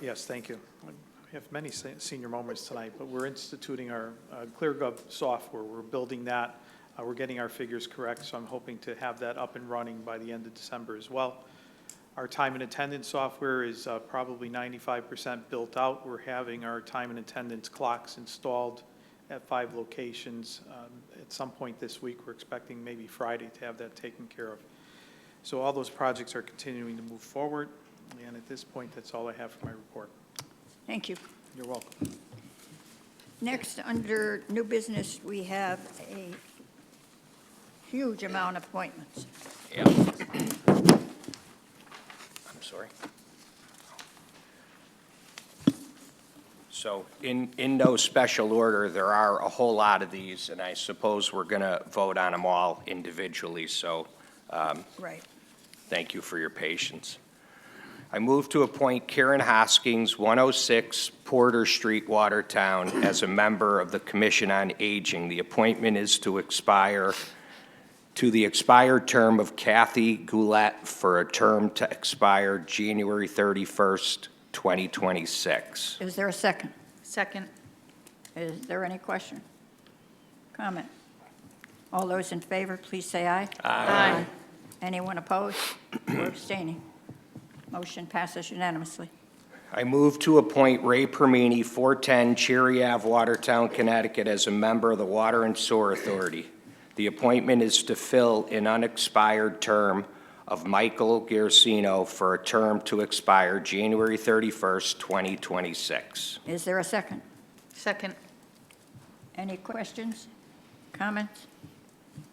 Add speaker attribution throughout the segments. Speaker 1: yes, thank you. We have many se- senior moments tonight, but we're instituting our uh, ClearGov software. We're building that. Uh, We're getting our figures correct, so I'm hoping to have that up and running by the end of December as well. Our time and attendance software is uh, probably 95% built out. We're having our time and attendance clocks installed at five locations. um, At some point this week, we're expecting maybe Friday to have that taken care of. So all those projects are continuing to move forward, and at this point, that's all I have for my report.
Speaker 2: Thank you.
Speaker 1: You're welcome.
Speaker 2: Next, under new business, we have a huge amount of appointments.
Speaker 3: Yeah. I'm sorry. So in, in no special order, there are a whole lot of these, and I suppose we're going to vote on them all individually, so
Speaker 2: Right.
Speaker 3: thank you for your patience. I move to appoint Karen Hoskins, 106 Porter Street, Watertown, as a member of the Commission on Aging. The appointment is to expire, to the expired term of Kathy Goulet for a term to expire January 31st, 2026.
Speaker 2: Is there a second?
Speaker 4: Second.
Speaker 2: Is there any question? Comment? All those in favor, please say aye.
Speaker 4: Aye.
Speaker 2: Anyone opposed or abstaining? Motion passes unanimously.
Speaker 3: I move to appoint Ray Permini, 410 Cherry Ave, Watertown, Connecticut, as a member of the Water and Sewer Authority. The appointment is to fill an unexpired term of Michael Garcino for a term to expire January 31st, 2026.
Speaker 2: Is there a second?
Speaker 4: Second.
Speaker 2: Any questions? Comments?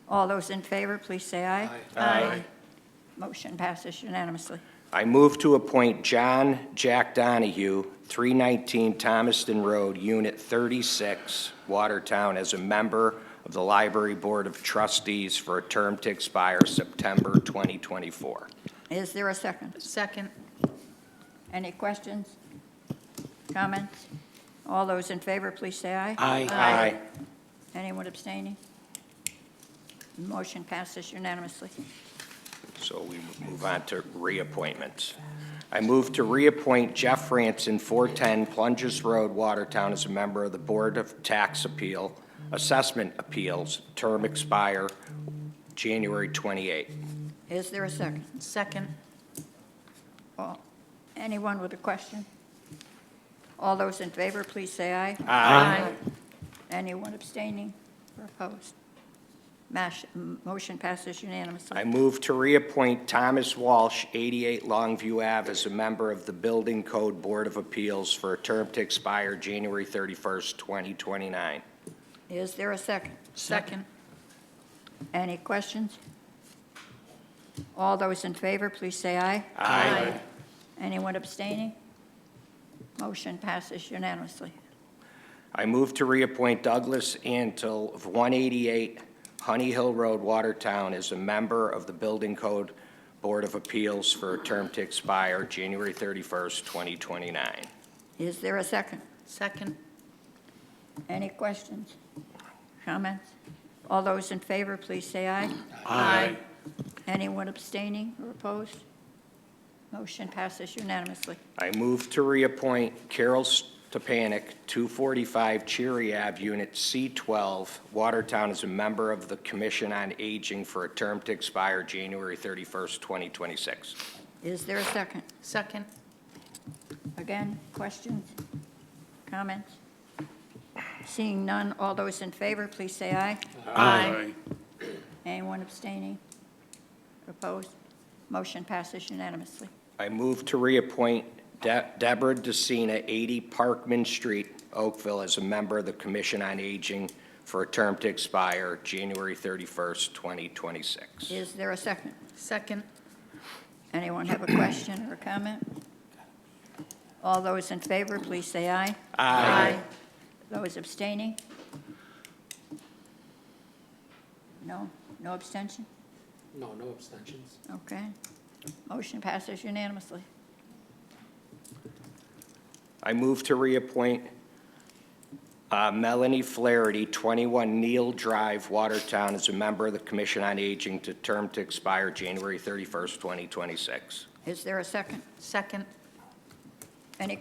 Speaker 2: All those in favor, please say aye.
Speaker 4: Aye.
Speaker 2: Motion passes unanimously.
Speaker 3: I move to appoint John Jack Donahue, 319 Thomaston Road, Unit 36, Watertown, as a member of the Library Board of Trustees for a term to expire September 2024.
Speaker 2: Is there a second?
Speaker 4: Second.
Speaker 2: Any questions? Comments? All those in favor, please say aye.
Speaker 3: Aye.
Speaker 2: Anyone abstaining? Motion passes unanimously.
Speaker 3: So we move on to reappointments. I move to reappoint Jeff Franson, 410 Plunges Road, Watertown, as a member of the Board of Tax Appeal, Assessment Appeals, term expire January 28.
Speaker 2: Is there a second?
Speaker 4: Second.
Speaker 2: All- Anyone with a question? All those in favor, please say aye.
Speaker 4: Aye.
Speaker 2: Anyone abstaining or opposed? Mash- m- Motion passes
Speaker 3: I
Speaker 2: unanimously.
Speaker 3: move to reappoint Thomas Walsh, 88 Longview Ave, as a member of the Building Code Board of Appeals for a term to expire January 31st, 2029.
Speaker 2: Is there a second?
Speaker 4: Second.
Speaker 2: Any questions? All those in favor, please say aye.
Speaker 4: Aye.
Speaker 2: Anyone abstaining? Motion passes unanimously.
Speaker 3: I move to reappoint Douglas Antle of 188 Honey Hill Road, Watertown, as a member of the Building Code Board of Appeals for a term to expire January 31st, 2029.
Speaker 2: Is there a second?
Speaker 4: Second.
Speaker 2: Any questions? Comments? All those in favor, please say aye.
Speaker 4: Aye.
Speaker 2: Anyone abstaining or opposed? Motion passes unanimously.
Speaker 3: I move to reappoint Carol Stepanic, 245 Cherry Ave, Unit C12, Watertown, as a member of the Commission on Aging for a term to expire January 31st, 2026.
Speaker 2: Is there a second?
Speaker 4: Second.
Speaker 2: Again, questions? Comments? Seeing none, all those in favor, please say aye.
Speaker 4: Aye.
Speaker 2: Anyone abstaining? Opposed? Motion passes unanimously.
Speaker 3: I move to reappoint De- Deborah DeCina, 80 Parkman Street, Oakville, as a member of the Commission on Aging for a term to expire January 31st, 2026.
Speaker 2: Is there a second?
Speaker 4: Second.
Speaker 2: Anyone have a question or a comment? All those in favor, please say aye.
Speaker 4: Aye.
Speaker 2: Those abstaining? No? No abstention?
Speaker 5: No, no abstentions.
Speaker 2: Okay. Motion passes unanimously.
Speaker 3: I move to reappoint uh, Melanie Flaherty, 21 Neil Drive, Watertown, as a member of the Commission on Aging to term to expire January 31st, 2026.
Speaker 2: Is there a second?
Speaker 4: Second.
Speaker 2: Any